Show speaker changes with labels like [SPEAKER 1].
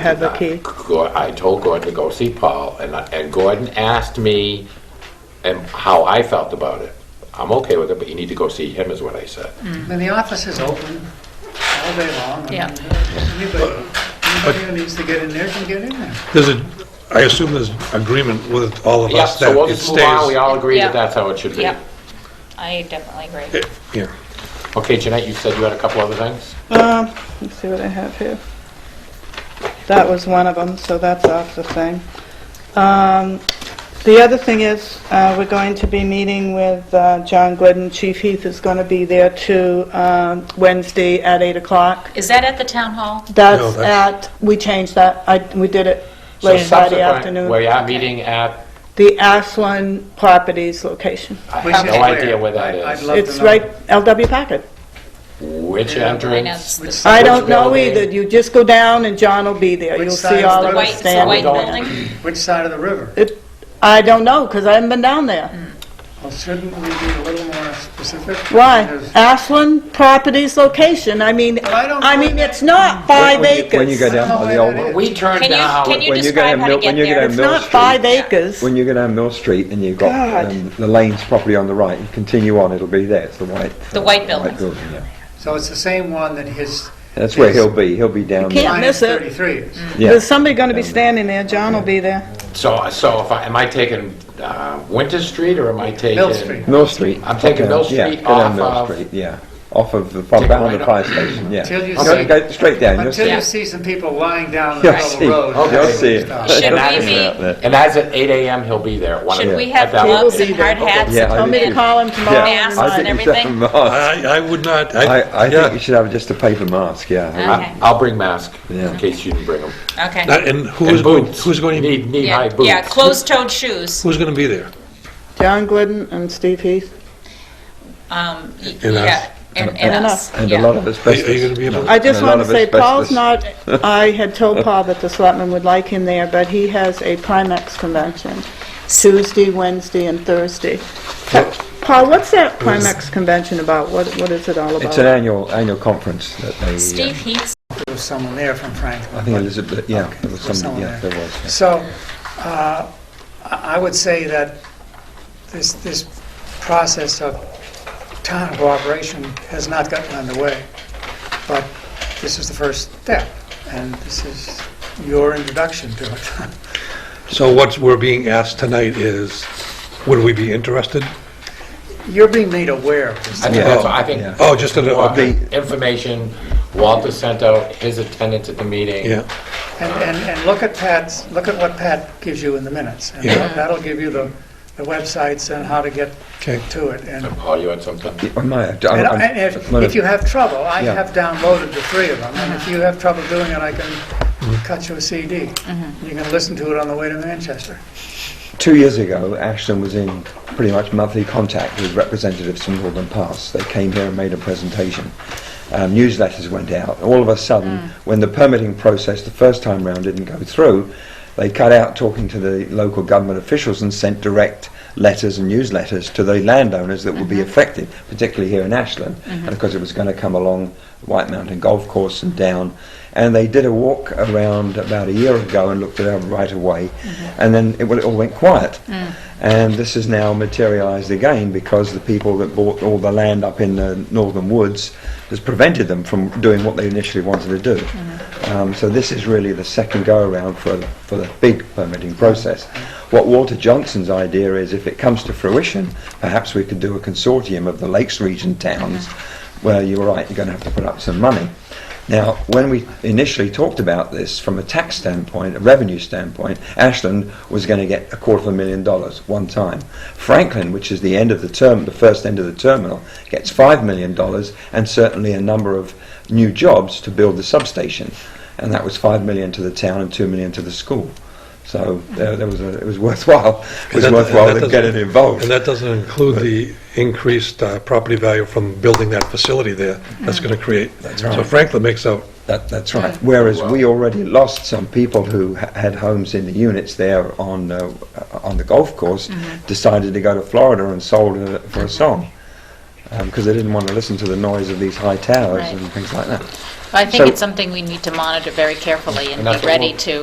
[SPEAKER 1] Has a key.
[SPEAKER 2] Gor- I told Gordon to go see Paul, and, I- and Gordon asked me and how I felt about it. I'm okay with it, but you need to go see him, is what I said.
[SPEAKER 3] Now, the office is open all day long. I
[SPEAKER 4] Yeah.
[SPEAKER 3] mean, Anybody, anybody who needs to get in there can get in there.
[SPEAKER 5] There's a, I assume there's agreement with all of
[SPEAKER 2] Yep,
[SPEAKER 5] us
[SPEAKER 2] so
[SPEAKER 5] that
[SPEAKER 2] we'll
[SPEAKER 5] it
[SPEAKER 2] just move on, we
[SPEAKER 5] stays.
[SPEAKER 2] all agree that
[SPEAKER 4] Yeah.
[SPEAKER 2] that's how it should be.
[SPEAKER 4] Yep, I definitely agree.
[SPEAKER 5] Eh, Yeah,
[SPEAKER 2] Okay, Jeanette, you said you had a couple other things?
[SPEAKER 1] Um, let's see what I have here. That was one of them, so that's off the thing. Um, the other thing is, uh, we're going to be meeting with, uh, John Glidden. Chief Heath is gonna be there too, um, Wednesday at eight o'clock.
[SPEAKER 4] Is that at the town hall?
[SPEAKER 1] That's
[SPEAKER 5] that's-
[SPEAKER 1] at, we changed that, I, we did it
[SPEAKER 2] So
[SPEAKER 1] late Friday
[SPEAKER 2] subsequent- Where
[SPEAKER 1] afternoon.
[SPEAKER 2] you at meeting at,
[SPEAKER 1] The Ashland Properties location.
[SPEAKER 2] I
[SPEAKER 3] Which
[SPEAKER 2] have
[SPEAKER 3] is
[SPEAKER 2] no idea where
[SPEAKER 3] I-
[SPEAKER 2] that
[SPEAKER 3] I'd
[SPEAKER 2] is.
[SPEAKER 3] love to
[SPEAKER 1] It's
[SPEAKER 3] know.
[SPEAKER 1] right, LW Packet.
[SPEAKER 2] Which
[SPEAKER 4] I know, it's
[SPEAKER 2] entrance?
[SPEAKER 4] the-
[SPEAKER 1] I
[SPEAKER 2] Which
[SPEAKER 1] don't know
[SPEAKER 2] building?
[SPEAKER 1] either, you just go down and John will be there,
[SPEAKER 3] Which
[SPEAKER 1] you'll
[SPEAKER 3] side
[SPEAKER 1] see
[SPEAKER 3] is
[SPEAKER 1] all
[SPEAKER 3] the
[SPEAKER 1] of
[SPEAKER 3] white-
[SPEAKER 1] us
[SPEAKER 3] it's the
[SPEAKER 1] standing
[SPEAKER 4] white
[SPEAKER 1] there.
[SPEAKER 4] building?
[SPEAKER 3] Which side of the river?
[SPEAKER 1] It, I don't know, because I haven't been down there.
[SPEAKER 3] Well, shouldn't we be a little more specific?
[SPEAKER 1] Why?
[SPEAKER 3] Because-
[SPEAKER 1] Ashland Properties location, I mean,
[SPEAKER 3] I don't
[SPEAKER 1] I
[SPEAKER 3] know.
[SPEAKER 1] mean, it's not five
[SPEAKER 6] When you-
[SPEAKER 1] acres.
[SPEAKER 6] When you go down
[SPEAKER 3] I don't
[SPEAKER 6] on
[SPEAKER 3] know
[SPEAKER 6] the
[SPEAKER 3] where
[SPEAKER 6] old
[SPEAKER 3] that
[SPEAKER 4] Oh,
[SPEAKER 6] one,
[SPEAKER 3] is.
[SPEAKER 2] We turned
[SPEAKER 4] Can
[SPEAKER 2] down.
[SPEAKER 4] you, can you
[SPEAKER 6] When you go
[SPEAKER 4] describe
[SPEAKER 6] down
[SPEAKER 4] how to
[SPEAKER 6] Mill-
[SPEAKER 4] get
[SPEAKER 6] when you go
[SPEAKER 4] there?
[SPEAKER 6] down
[SPEAKER 1] It's
[SPEAKER 6] Mill
[SPEAKER 1] not
[SPEAKER 6] Street.
[SPEAKER 1] five acres.
[SPEAKER 6] when you go down Mill Street and you've got
[SPEAKER 1] God.
[SPEAKER 6] um, the lanes properly on the right, you continue on, it'll be there, it's the white.
[SPEAKER 4] The white building.
[SPEAKER 6] yeah.
[SPEAKER 3] So it's the same one that his.
[SPEAKER 6] That's where
[SPEAKER 3] his
[SPEAKER 6] he'll be, he'll be down.
[SPEAKER 1] can't-
[SPEAKER 6] there.
[SPEAKER 3] line
[SPEAKER 1] miss it.
[SPEAKER 3] 33 is.
[SPEAKER 6] Yeah.
[SPEAKER 1] There's somebody gonna be standing there, John will be there.
[SPEAKER 2] So, so if I, am I taking uh, Winter Street or am I taking?
[SPEAKER 3] Mill Street.
[SPEAKER 6] Mill Street.
[SPEAKER 2] I'm taking Mill
[SPEAKER 6] Yeah,
[SPEAKER 2] Street
[SPEAKER 6] go down
[SPEAKER 2] off
[SPEAKER 6] Mill
[SPEAKER 2] of-
[SPEAKER 6] Street, Yeah, off of the, far
[SPEAKER 2] Take a
[SPEAKER 6] down
[SPEAKER 2] right
[SPEAKER 6] the
[SPEAKER 2] up.
[SPEAKER 6] fire station, yeah.
[SPEAKER 3] Until you
[SPEAKER 6] Go-
[SPEAKER 3] see-
[SPEAKER 6] Go straight down, you'll
[SPEAKER 3] Until
[SPEAKER 6] see.
[SPEAKER 3] you
[SPEAKER 6] it.
[SPEAKER 3] see some people lying down in the middle of
[SPEAKER 6] You'll see,
[SPEAKER 3] the road.
[SPEAKER 2] Okay.
[SPEAKER 6] you'll see it.
[SPEAKER 3] Stop.
[SPEAKER 4] Should
[SPEAKER 2] that
[SPEAKER 4] we
[SPEAKER 2] is-
[SPEAKER 4] be,
[SPEAKER 2] And that's at eight AM, he'll be there. at one
[SPEAKER 4] should
[SPEAKER 2] o'clock.
[SPEAKER 4] we
[SPEAKER 2] At
[SPEAKER 4] have
[SPEAKER 2] that
[SPEAKER 4] gloves
[SPEAKER 2] one.
[SPEAKER 4] and hard hats?
[SPEAKER 6] Yeah, I
[SPEAKER 1] Tell
[SPEAKER 6] do
[SPEAKER 1] me to
[SPEAKER 6] too.
[SPEAKER 1] call him tomorrow.
[SPEAKER 4] Yeah,
[SPEAKER 1] and
[SPEAKER 4] I
[SPEAKER 1] remind
[SPEAKER 4] think
[SPEAKER 1] him.
[SPEAKER 4] and
[SPEAKER 6] I think you should have
[SPEAKER 4] everything.
[SPEAKER 6] a mask.
[SPEAKER 5] I, I would not,
[SPEAKER 6] I,
[SPEAKER 5] I,
[SPEAKER 6] I think
[SPEAKER 5] yeah.
[SPEAKER 6] you should have just a paper mask, yeah.
[SPEAKER 4] Okay,
[SPEAKER 2] I- I'll bring mask,
[SPEAKER 6] Yeah.
[SPEAKER 2] in case you didn't bring them.
[SPEAKER 4] okay.
[SPEAKER 5] Not- And who
[SPEAKER 2] And
[SPEAKER 5] is, going-
[SPEAKER 2] boots.
[SPEAKER 5] who's going, to
[SPEAKER 2] Need, need high
[SPEAKER 4] Yeah,
[SPEAKER 2] boots.
[SPEAKER 4] yeah, closed-toed shoes.
[SPEAKER 5] who's going to be there?
[SPEAKER 1] John Glidden and Steve Heath.
[SPEAKER 4] Um, y-
[SPEAKER 5] And us.
[SPEAKER 4] yeah, and, and us.
[SPEAKER 6] And a
[SPEAKER 4] yeah.
[SPEAKER 6] lot of
[SPEAKER 5] Are you- are you
[SPEAKER 6] asbestos.
[SPEAKER 5] going to be able,
[SPEAKER 1] I just
[SPEAKER 6] And a lot
[SPEAKER 1] wanna
[SPEAKER 6] of
[SPEAKER 1] say, Paul's
[SPEAKER 6] asbestos.
[SPEAKER 1] not, I had told Paul that the selectmen would like him there, but he has a Primex convention, Tuesday, Wednesday, and Thursday. Paul, what's that Primex convention about? What, what is it all about?
[SPEAKER 6] It's an annual, annual conference that they, uh,
[SPEAKER 4] Steve Heath,
[SPEAKER 3] There was someone there from Franklin.
[SPEAKER 6] I think Elizabeth, yeah, there was
[SPEAKER 3] There's someone
[SPEAKER 6] somebody, yeah,
[SPEAKER 3] there.
[SPEAKER 6] there was. yeah.
[SPEAKER 3] So, uh, I I would say that this, this process of town cooperation has not gotten underway, but this is the first step, and this is your introduction to it.
[SPEAKER 5] so what we're being asked tonight is, would we be interested?
[SPEAKER 3] You're being made aware of this.
[SPEAKER 2] I think
[SPEAKER 6] Yeah.
[SPEAKER 2] that's, what- I think.
[SPEAKER 6] Yeah.
[SPEAKER 5] Oh, just an
[SPEAKER 2] Walker,
[SPEAKER 5] update.
[SPEAKER 2] Information, Walter sent out his attendance at the meeting.
[SPEAKER 5] Yeah,
[SPEAKER 3] And, and, and look at Pat's, look at what Pat gives you in the minutes, and
[SPEAKER 5] Yeah.
[SPEAKER 3] that'll give you the, the websites and how to get
[SPEAKER 5] okay.
[SPEAKER 3] to it, and
[SPEAKER 2] And Paul, you had something?
[SPEAKER 6] I might have. I-
[SPEAKER 3] And
[SPEAKER 6] I'm-
[SPEAKER 3] and if,
[SPEAKER 6] might
[SPEAKER 3] if you have trouble, I
[SPEAKER 6] Yeah.
[SPEAKER 3] have downloaded the three of them, and if you have trouble doing it, I
[SPEAKER 6] Mm-hmm.
[SPEAKER 3] can cut you a CD. You can listen to it on the way to Manchester.
[SPEAKER 6] Two years ago, Ashton was in pretty much monthly contact with representatives from Northern Pass. They came here and made a presentation. Um, newsletters went out. All of a sudden, when the permitting process the first time round didn't go through, they cut out talking to the local government officials and sent direct letters and newsletters to the landowners that would be affected, particularly here in Ashland. And of course, it was going to come along White Mountain Golf Course and down. And they did a walk around about a year ago and looked at our right of way, and then it, well, it all went quiet. And this has now materialised again because the people that bought all the land up in the northern woods has prevented them from doing what they initially wanted to do. Um, so this is really the second go around for, for the big permitting process. What Walter Johnson's idea is if it comes to fruition, perhaps we could do a consortium of the Lakes region towns where you're right, you're going to have to put up some money. Now, when we initially talked about this from a tax standpoint, a revenue standpoint, Ashland was going to get a quarter of a million dollars one time. Franklin, which is the end of the term, the first end of the terminal, gets five million dollars and certainly a number of new jobs to build the substation. And that was five million to the town and two million to the school. So there, there was a, it was worthwhile. It was
[SPEAKER 5] And that-
[SPEAKER 6] worthwhile
[SPEAKER 5] and that
[SPEAKER 6] them getting
[SPEAKER 5] doesn't-
[SPEAKER 6] involved.
[SPEAKER 5] And that doesn't include the increased uh, property value from building that facility there that's going to create. That's So
[SPEAKER 6] right.
[SPEAKER 5] Franklin makes out
[SPEAKER 6] That, that's right. Whereas we already lost some people who ha- had homes in the units there on, uh, on the golf course, decided to go to Florida and sold uh, for a song. because they didn't want to listen to the noise of these high towers
[SPEAKER 4] Right.
[SPEAKER 6] and things like that.
[SPEAKER 4] I think
[SPEAKER 6] So-
[SPEAKER 4] it's something we need to monitor very carefully and
[SPEAKER 2] And that's
[SPEAKER 4] be
[SPEAKER 2] what we'll-
[SPEAKER 4] ready to